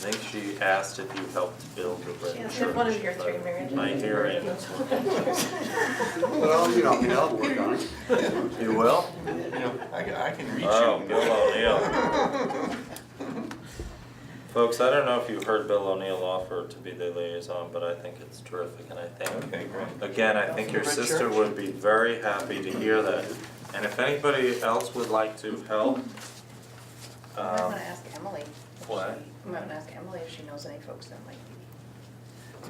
I think she asked if you helped build the red She church. asked if one of your three but marriages My was hair red. ends. Well, you know, I mean, I'll work on it. You will? You know, I can, I can reach you. Oh, Bill O'Neill. Folks, I don't know if you've heard Bill O'Neill offer to be their liaison, but I think it's terrific and I think, Okay, great. again, I think your sister would be very happy to hear that. And if anybody else would like to help, I um, wanna ask Emily. if What? she- I wanna ask Emily if she knows any folks that might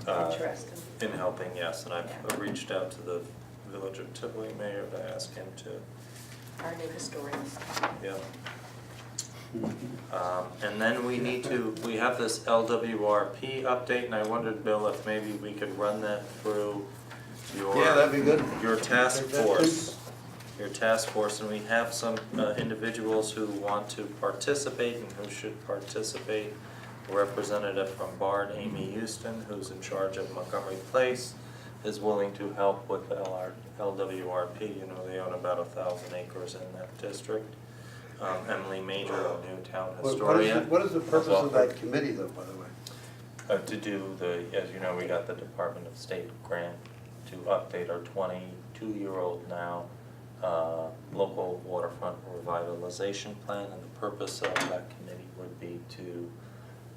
be Uh, interested. in helping, yes, and I've Yeah. reached out to the village of Tivoli mayor to ask him to Our new historians. Yeah. Um, and then we need to, we have this LWRP update, and I wondered, Bill, if maybe we could run that through your. Yeah, that'd be good. Your task Take that, force, your task force, and we have some uh, individuals who want to participate and who should participate. Representative from Bard, Amy Houston, who's in charge of Montgomery Place, is willing to help with the LR LWRP. You know, they own about a thousand acres in that district. Um, Emily Major, a new town What- What is, historian. the- what is the has purpose of offered- that committee though, by the way? uh, to do the, as you know, we got the Department of State grant to update our twenty-two-year-old now, uh, local waterfront revitalization plan, and the purpose of that committee would be to,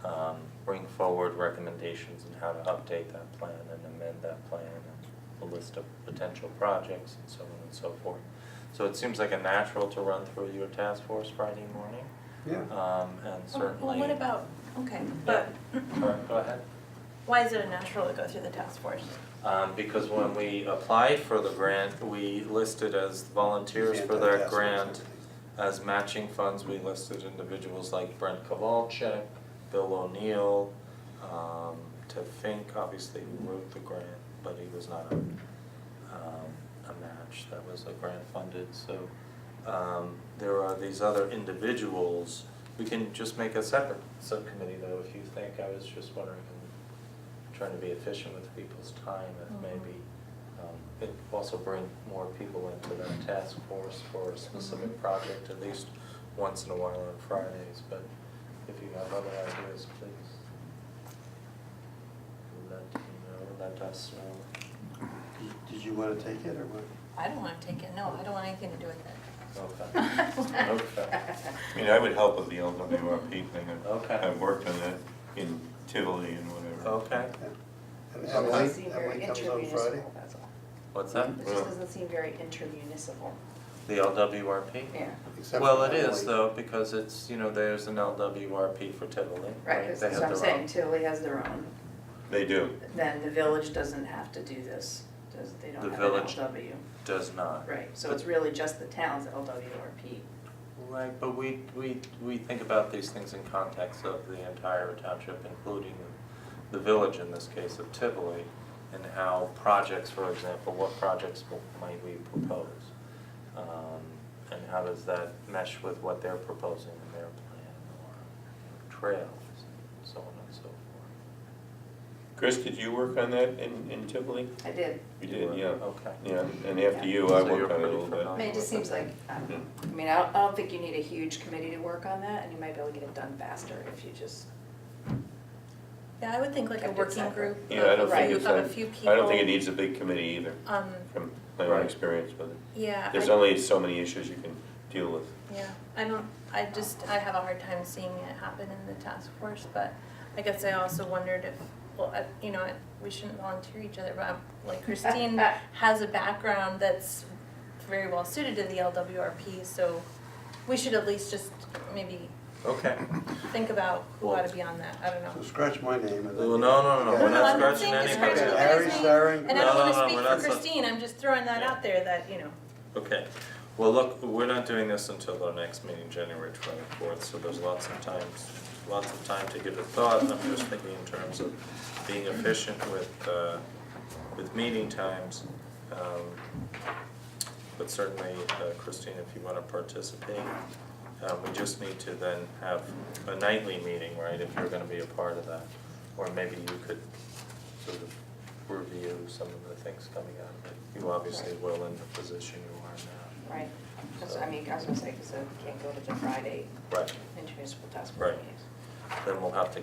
um, bring forward recommendations on how to update that plan and amend that plan, and a list of potential projects and so on and so forth. So it seems like a natural to run through your task force Friday morning, Yeah. um, and certainly. Well, what about, okay, but All right, go ahead. why is it unnatural to go through the task force? Um, because when we applied for the grant, we listed as volunteers for that grant. As matching funds, we listed individuals like Brent Kowalczyk, Bill O'Neill, um, Ted Fink, obviously who wrote the grant, but he was not a, um, a match, that was a grant funded, so. Um, there are these other individuals, we can just make a separate subcommittee though, if you think, I was just wondering, I'm trying to be efficient with people's time, if Mhm. maybe, um, it also bring more people into that task force for a specific project at least once in a while on Fridays, but if you have other ideas, please let me know, let us know. Did- Did you wanna take it or what? I don't wanna take it, no, I don't want anything to do with Oh. Okay. Okay. I mean, I would help with the LWRP thing. I've- Okay. I've worked on that in Tivoli and whatever. Okay, Yeah. And She doesn't Emily, seem very Emily comes on Friday? intermunicipal, that's all. what's that? It just doesn't seem very intermunicipal, The LWRP? yeah. Except Well, for it is Emily. though, because it's, you know, there's an LWRP for Tivoli, Right, 'cause They have that's what I'm their own. saying, Tilly has their own, They do. then the village doesn't have to do this, does, they don't The have an village- Uh, LW. Does not. Right, so it's really just the town's LWRP. Right, but we, we, we think about these things in context of the entire township, including the village in this case of Tivoli, and how projects, for example, what projects w- might we propose? Um, and how does that mesh with what they're proposing in their plan, or trails, and so on and so forth? Chris, did you work on that in, in Tivoli? I did. You You did, were- yeah. okay. Yeah, and after you, I So you're worked on it a pretty little bit. I familiar. mean, it just seems like, um, I mean, I don't, I don't think you need a huge committee to work on that, and you might be able to get it done faster if you just, Yeah, I would think like a Kept it working separate. group, a Yeah, I don't a think Right. group it's, of a few a- people. I don't think it needs a big committee either, Um, from my own Right. experience with it. yeah. There's I- only so many issues you can deal with. Yeah, I don't, I just, I have a hard time seeing it happen in the task force, but I guess I also wondered if, well, I- you know, we shouldn't volunteer each other, but I'm- like Christine has a background that's very well suited to the LWRP, so we should at least just maybe Okay. think about who ought to be on that, I don't So know. scratch my name and then. Well, no, no, no, Yeah. we're not I'm not scratching saying just anybody's scratch Okay, name. Harry, anybody's name, Sarah, And I don't No, wanna no, no, speak we're for not sa- Christine, I'm just throwing that out there that, you know, Okay, well, look, we're not doing this until our next meeting, January twenty-fourth, so there's lots of times, lots of time to give it thought. I'm just thinking in terms of being efficient with, uh, with meeting times. Um, But certainly, uh, Christine, if you wanna participate, uh, we just need to then have a nightly meeting, right, if you're gonna be a part of that. Or maybe you could sort of review some of the things coming out of it. You obviously will in the position you are right? 'Cause, I mean, I was gonna say, because I can't go to the Friday now. Right. intermunicipal task Right. force meetings. Then we'll have to